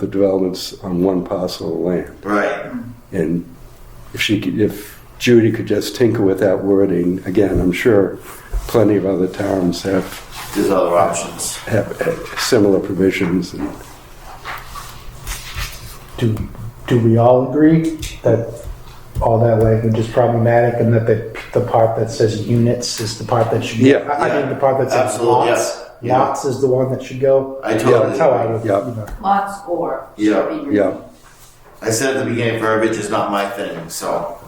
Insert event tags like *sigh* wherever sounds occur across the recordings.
the development's on one parcel of land. Right. And if she, could- if Judy could just tinker with that wording, again, I'm sure plenty of other towns have, There's other options. have uh, similar provisions. And Do, do we all agree that all that language is problematic and that the, the part that says units is the part that should go? Yeah. I I mean, the part that says Absolutely, lots, yeah. lots is the one that should go? I totally That's how I agree. would, you Yeah. know. Lots or. Yeah, yeah. I said at the beginning, verbiage is not my thing, so,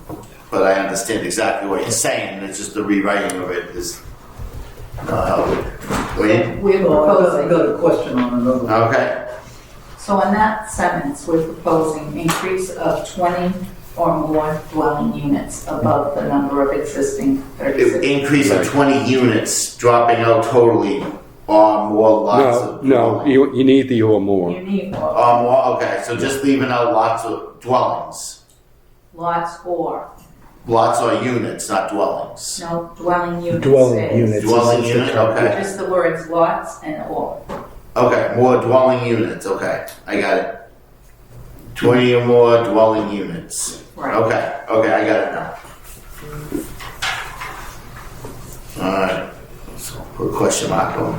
but I understand exactly what you're saying, it's just the rewriting of it is not helping. Wait, We're Well, I got- I proposing, got a question on another one. okay, so in that sentence, we're proposing increase of twenty or more dwelling units above the number of existing If thirty-six. increase of twenty units, dropping out totally, or more lots No, of. no, you, you need the or more. You need more, Or more, okay, so just leaving out lots of dwellings, lots or, lots or units, not dwellings. no dwelling units. dwelling is- units. is- Dwelling is the unit, term. okay. Just the words lots and or. Okay, more dwelling units. Okay, I got it. 20 or more dwelling units. Right. Okay, okay, I got it now. Alright, so put a question mark on.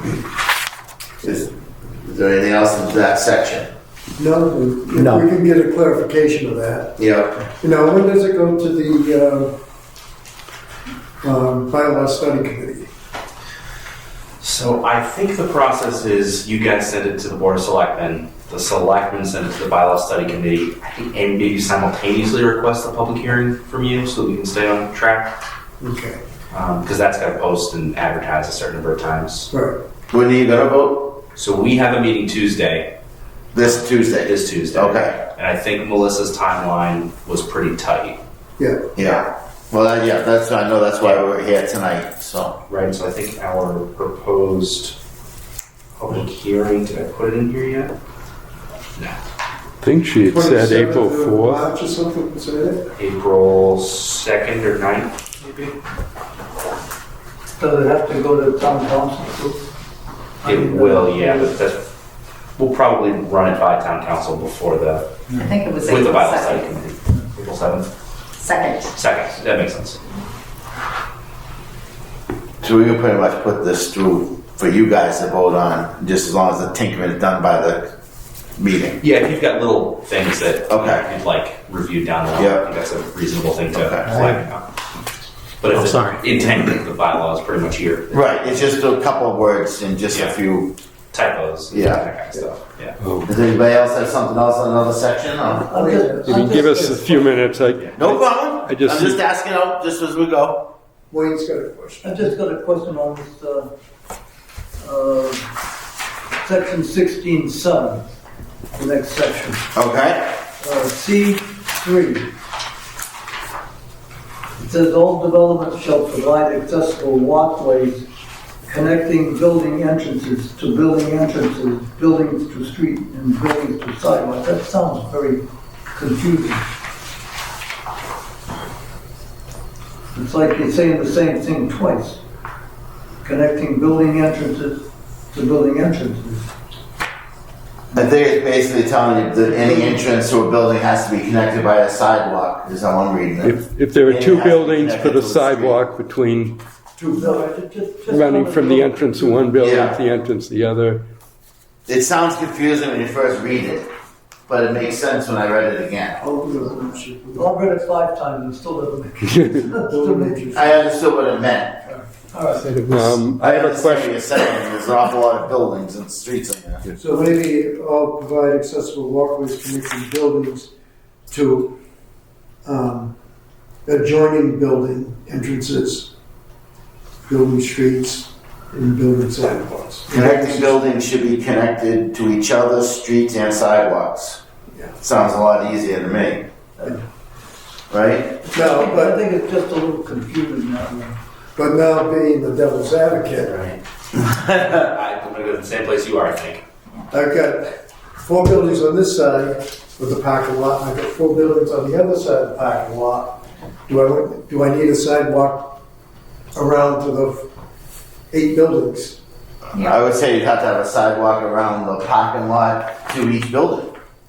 Is, is there anything else in that section? No, if we No. can get a clarification of that. Yeah. You know, when does it go to the uh, um, bylaw study committee? So I think the process is you guys send it to the Board of Selectmen, the Selectmen send it to the Bylaw Study Committee, I think, and maybe simultaneously request a public hearing from you so that we can stay on track, Okay, because that's got to post and advertise a certain number of times. right. When are you gonna vote? So we have a meeting Tuesday, This Tuesday. this Tuesday. Okay. And I think Melissa's timeline was pretty tight. Yeah, Yeah. Well, that, yeah, that's, I know that's why we're here tonight, so. Right, so I think our proposed public hearing, did I put it in here yet? I think she had said 27th April of 4th. March or something, was it? April 2nd or 9th, maybe? Does it have to go to town council? too? I It mean, will, uh, yeah, but that's, we'll probably run it by town council before the, I think it was with the April bylaw study second. committee. April seventh, Second, second, that makes sense. So we can pretty much put this through for you guys to vote on, just as long as the tinkering is done by the meeting. Yeah, if you've got little things that Okay. you'd like reviewed down the line, Yeah. I think that's a reasonable thing to Okay. flag up. But I'm if the sorry. intent of the bylaw is pretty much here, Right, it's just a couple of words and just a Yeah. few. typos, and Yeah. that kind of stuff, yeah. *laughs* Does anybody else have something else on another section? or- I'm just- You I'm can give just- us a few minutes, I, No problem. I just- I'm just asking out just as we go. Wayne's got a question. I just got a question on this, uh, uh, section sixteen seven, the next section, Okay. uh, C three. It says all developments shall provide accessible walkways connecting building entrances to building entrances, buildings to street and buildings to sidewalk. That sounds very confusing. It's like you're saying the same thing twice. Connecting building entrances to building entrances. I think it's basically telling you that any entrance to a building has to be connected by a sidewalk, is how I'm reading it. if, if there are And it two has to buildings, connect put it a to the street. sidewalk between, No, it just- just- running from the entrance of one building to Yeah. the entrance of the other. It sounds confusing when you first read it, but it makes sense when I read it again. I'll do it. I'm sure we'll- I've read it five times and still doesn't make still we'll make make- it. I understood what it meant. All right. Said it was- Um, I have a understand what question. you're saying. There's an awful lot of buildings and streets in there. So maybe I'll provide accessible walkways connecting buildings to um, adjoining building entrances, building streets, and building sidewalks. Connecting buildings should be connected to each other, streets and sidewalks. Yeah. Sounds a lot easier to me. Right? Now, I but, think it's just a little confusing now. but now being the devil's advocate, Right. I- I'm gonna go to the same place you are, I think. I've got four buildings on this side with the parking lot, and I've got four buildings on the other side of the parking lot. Do I, want- do I need a sidewalk around to the eight buildings? Yeah. I would say you'd have to have a sidewalk around the parking lot to each building.